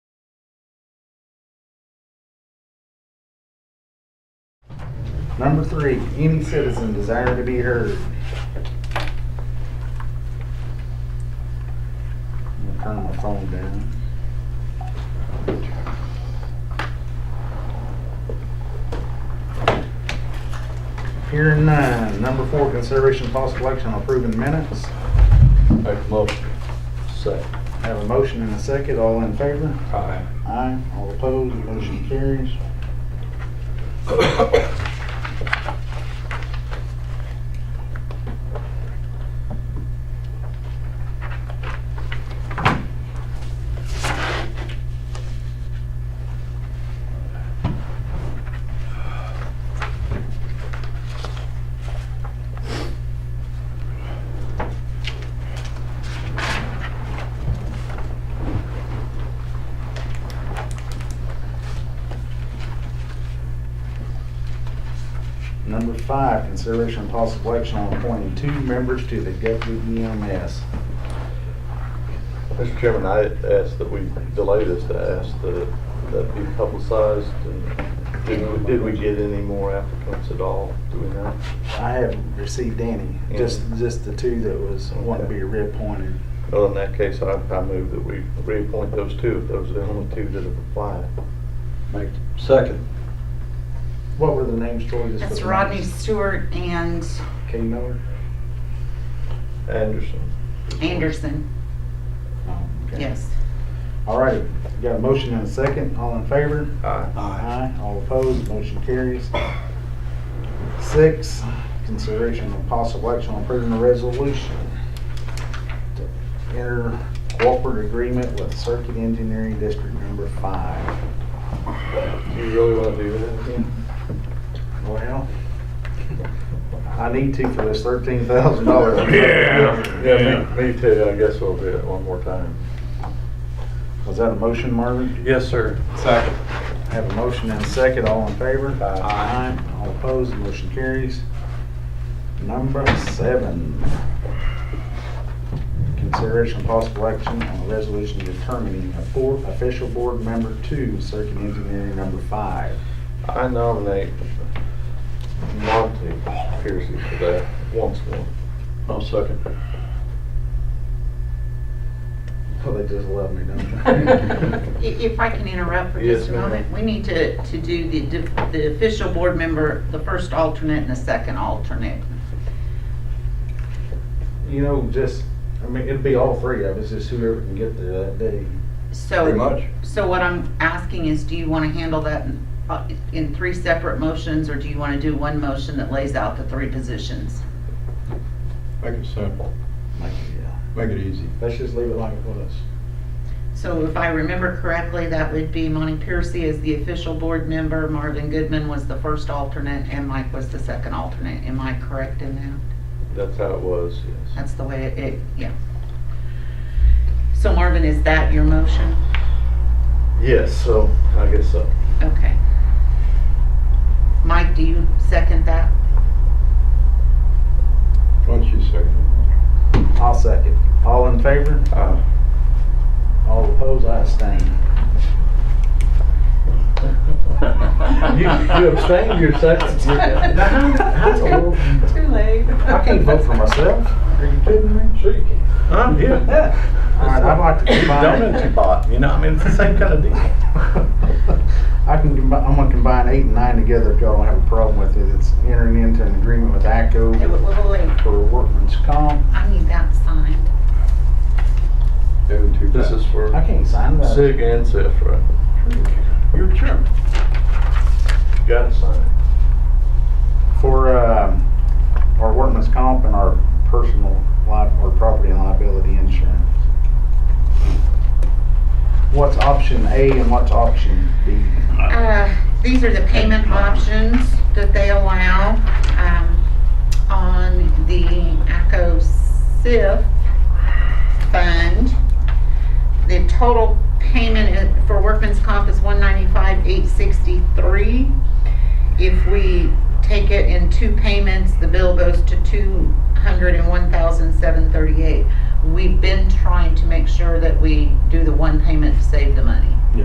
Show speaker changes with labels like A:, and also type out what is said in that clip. A: Number three, any citizen desire to be heard. I'm gonna turn my phone down. Hearing none. Number four, consideration of possible action on approving minutes.
B: Make a motion. Second.
A: Have a motion and a second. All in favor?
B: Aye.
A: Aye. All opposed? Motion carries. Number five, consideration of possible action on appointing two members to the E Guthrie EMS.
C: Mr. Chairman, I asked that we delay this to ask that that be publicized. and Did we- did we get any more applicants at all? Do we know?
A: I haven't received any, just, just the two that was, wanting to be reappointed.
C: Well, in that case, I I move that we reappoint those two, if those are the only two that have applied.
B: Make, second.
A: What were the names, Troy? Just
D: That's
A: for the
D: Rodney
A: names.
D: Stewart and
A: Kay Miller?
C: Anderson.
D: Anderson,
A: Oh, okay.
D: yes.
A: All right, got a motion and a second, all in favor?
C: Aye.
A: Aye. All opposed, motion carries. Six, consideration of possible action on approving a resolution to enter cooperative agreement with Circuit Engineering District Number Five.
C: Do you really want to do that?
A: Well, I need to for this thirteen thousand dollars.
C: Yeah, me me too. I guess we'll do it one more time.
A: Was that a motion, Marvin?
B: Yes, sir. Second.
A: I have a motion and a second, all in favor?
B: Aye.
A: All opposed, motion carries. Number seven. Consideration of possible action on a resolution determining a fourth official board member to Circuit Engineering Number Five.
C: I nominate Monty Piercy for that once more.
B: I'll second.
A: Well, Oh, they just love me,
D: I-
A: don't
D: If I can interrupt for
C: Yes,
D: just a
C: ma'am.
D: moment, we need to, to do the, di- the official board member, the first alternate and the second alternate.
A: they? You know, just, I mean, it'd be all three of us, just whoever can get there that day.
D: So. So what I'm asking is, do you want to handle that in, uh, in three separate motions, or do you want to do one motion that lays out the three positions?
E: Make it simple,
A: Like, yeah.
E: make it easy.
A: Let's just leave it like it was.
D: So if I remember correctly, that would be Monty Piercy as the official board member, Marvin Goodman was the first alternate, and Mike was the second alternate. Am I correct in that?
C: That's how it was, yes.
D: That's the way it- it, yeah. So Marvin, is that your motion?
C: Yes, so I guess so.
D: Okay. Mike, do you second that?
E: Once you second
A: I'll second. All in favor?
B: Ah.
C: Aye.
A: All opposed, I abstain.
C: You, you abstained your second.
A: that's a little-
D: Too late.
A: I can't vote for myself. Are you kidding me?
E: it. Sure you can.
B: I'm
A: All right, I'd like to combine.
B: Donut you bought, you know, I mean, it's the same kind of deal.
A: I can, combi- I'm gonna combine eight and nine together if y'all don't have a problem with it. It's entering into an agreement with
D: Hey, wait,
A: ACO
D: wait, wait, wait.
A: for workman's comp.
D: I need that signed.
E: Do two
C: This is for
A: I can't sign that.
C: Sig and Sifra.
B: You're chairman.
C: Gotta sign it.
A: For, um, our workman's comp and our personal li, or property and liability insurance. What's option A and what's option B?
D: Uh, These are the payment options that they allow um, on the ACO SIF fund. The total payment i- for workman's comp is one ninety-five, eight sixty-three. If we take it in two payments, the bill goes to two hundred and one thousand, seven thirty-eight. We've been trying to make sure that we do the one payment to save the money.